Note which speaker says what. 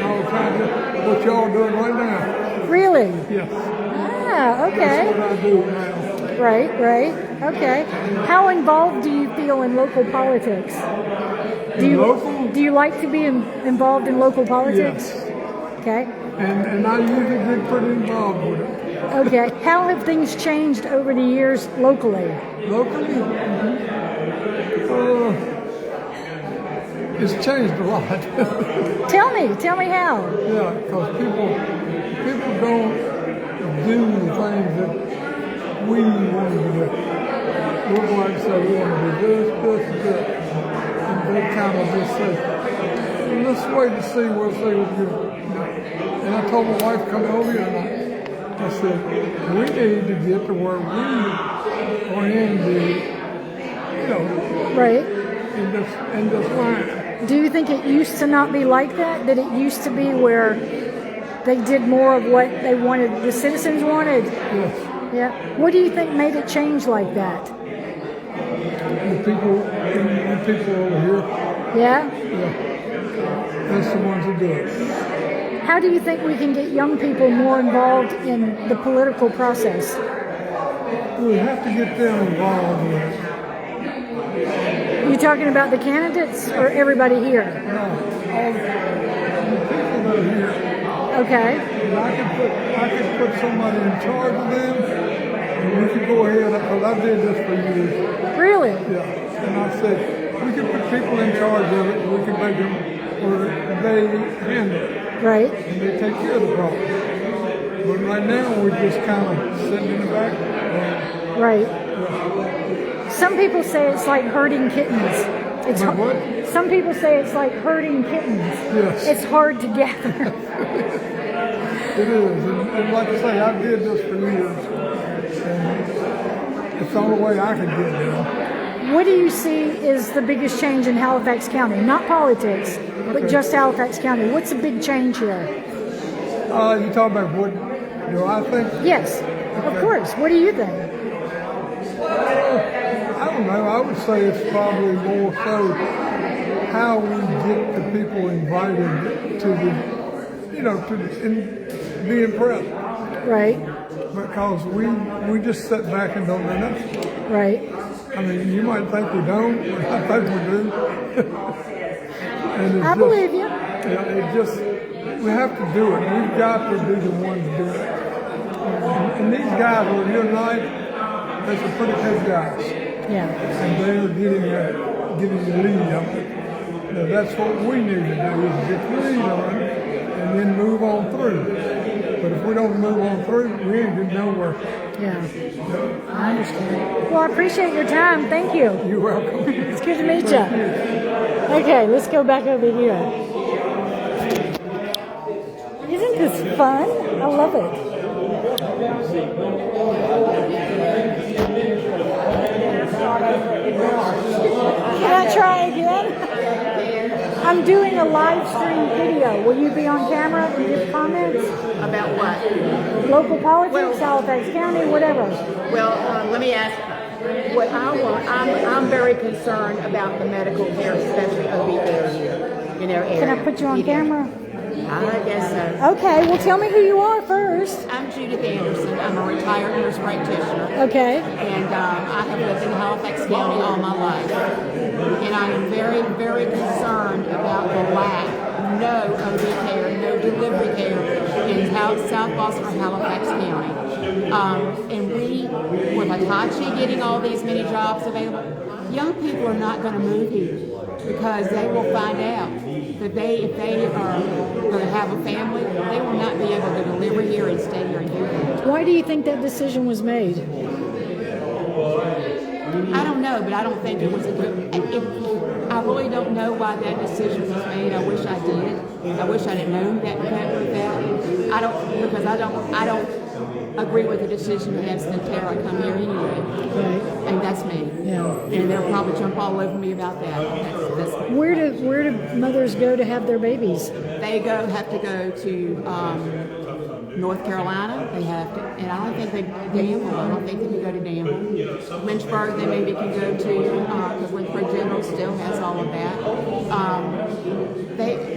Speaker 1: kind of what y'all doing right now.
Speaker 2: Really?
Speaker 1: Yes,
Speaker 2: Ah,
Speaker 1: that's
Speaker 2: okay.
Speaker 1: what I do now.
Speaker 2: Right, right. Okay. How involved do you feel in local politics? Do
Speaker 1: In
Speaker 2: you,
Speaker 1: local?
Speaker 2: Do you like to be in, involved in local politics?
Speaker 1: Yes,
Speaker 2: Okay.
Speaker 1: and and I usually get pretty involved with it.
Speaker 2: Okay. How have things changed over the years locally?
Speaker 1: Locally, uh, it's changed a lot.
Speaker 2: Tell me, tell me how.
Speaker 1: Yeah, because people people don't do the things that we want to do. We're going to say we want to do this, this, and that. And they kind of just say, "Well, let's wait and see what they will do. And I told my wife come over here and I, I said, we need to get to where we are in the, you know,
Speaker 2: Right.
Speaker 1: in this, in this line.
Speaker 2: Do you think it used to not be like that? That it used to be where they did more of what they wanted, the citizens wanted?
Speaker 1: Yes.
Speaker 2: Yeah. What do you think made it change like that?
Speaker 1: The people, the people over here
Speaker 2: Yeah.
Speaker 1: That's the ones who do it.
Speaker 2: How do you think we can get young people more involved in the political process?
Speaker 1: We have to get them involved with it.
Speaker 2: You talking about the candidates or everybody here?
Speaker 1: Now, all the people that are here,
Speaker 2: Okay.
Speaker 1: and I could put, I could put somebody in charge of them, and we could go ahead, because I did this for years,
Speaker 2: Really?
Speaker 1: yeah. And I said, we could put people in charge of it, and we could make them, or they handle it,
Speaker 2: Right.
Speaker 1: and they take care of the problem. But right now, we're just kind of sitting in the back.
Speaker 2: Right. Some people say it's like herding kittens. It's
Speaker 1: Like
Speaker 2: har-
Speaker 1: what?
Speaker 2: Some people say it's like herding kittens.
Speaker 1: Yes.
Speaker 2: It's hard to gather.
Speaker 1: It is, and, and like I say, I did this for years. And it's the only way I can get there.
Speaker 2: What do you see is the biggest change in Halifax County? Not politics, but just Halifax County. What's a big change here?
Speaker 1: Uh, you talk about what, you know, I think,
Speaker 2: Yes, of course. What do you think?
Speaker 1: I don't know, I would say it's probably more so how we get the people invited to the, you know, to in, be impressed.
Speaker 2: Right,
Speaker 1: Because we, we just sit back and don't do nothing.
Speaker 2: right.
Speaker 1: I mean, you might think we don't, but I think we do. and it's
Speaker 2: I
Speaker 1: just-
Speaker 2: believe you.
Speaker 1: Yeah, it just, we have to do it. We've got to be the ones to do it. And, and these guys who are here tonight, they're some pretty good guys.
Speaker 2: Yeah,
Speaker 1: And they're getting, uh, getting the lead on it. Now, that's what we need to do, is get the lead on it and then move on through. But if we don't move on through, we ain't getting nowhere.
Speaker 2: yeah. I understand. Well, I appreciate your time. Thank you.
Speaker 1: You're welcome.
Speaker 2: It's good to meet you. Okay, let's go back over here. Isn't this fun? I love it. Can I try again? I'm doing a live stream video. Will you be on camera and give comments?
Speaker 3: About what?
Speaker 2: Local politics,
Speaker 3: Well-
Speaker 2: Halifax County, whatever.
Speaker 3: Well, uh, let me ask, what I want, I'm, I'm very concerned about the medical care, especially OB area, in our area.
Speaker 2: Can I put you on
Speaker 3: Yeah.
Speaker 2: camera?
Speaker 3: I guess so.
Speaker 2: Okay, well tell me who you are first.
Speaker 3: I'm Judith Anderson, I'm a retired nurse practitioner,
Speaker 2: Okay.
Speaker 3: and um, I have lived in Halifax County all my life. And I am very, very concerned about the lack, no OB care, no delivery care in Hal- South Boston or Halifax County. Um, and we, with Hitachi getting all these many jobs available, young people are not going to move here because they will find out that they, if they are going to have a family, they will not be able to deliver here and stay here and do that.
Speaker 2: Why do you think that decision was made?
Speaker 3: I don't know, but I don't think it was a good. If, I really don't know why that decision was made. I wish I did. I wish I'd have known that. that, that. I don't because I don't. I don't agree with the decision to have Centerra come here anyway,
Speaker 2: Right.
Speaker 3: and that's me.
Speaker 2: Yeah.
Speaker 3: And they'll probably jump all over me about that. That's, that's,
Speaker 2: Where do where do mothers go to have their babies?
Speaker 3: they go have to go to um, North Carolina. They have to, and I don't think they Danville. I don't think they can go to Danville. Lynchburg, they maybe can uh, go to because Lynchburg General still has all of that. Um, they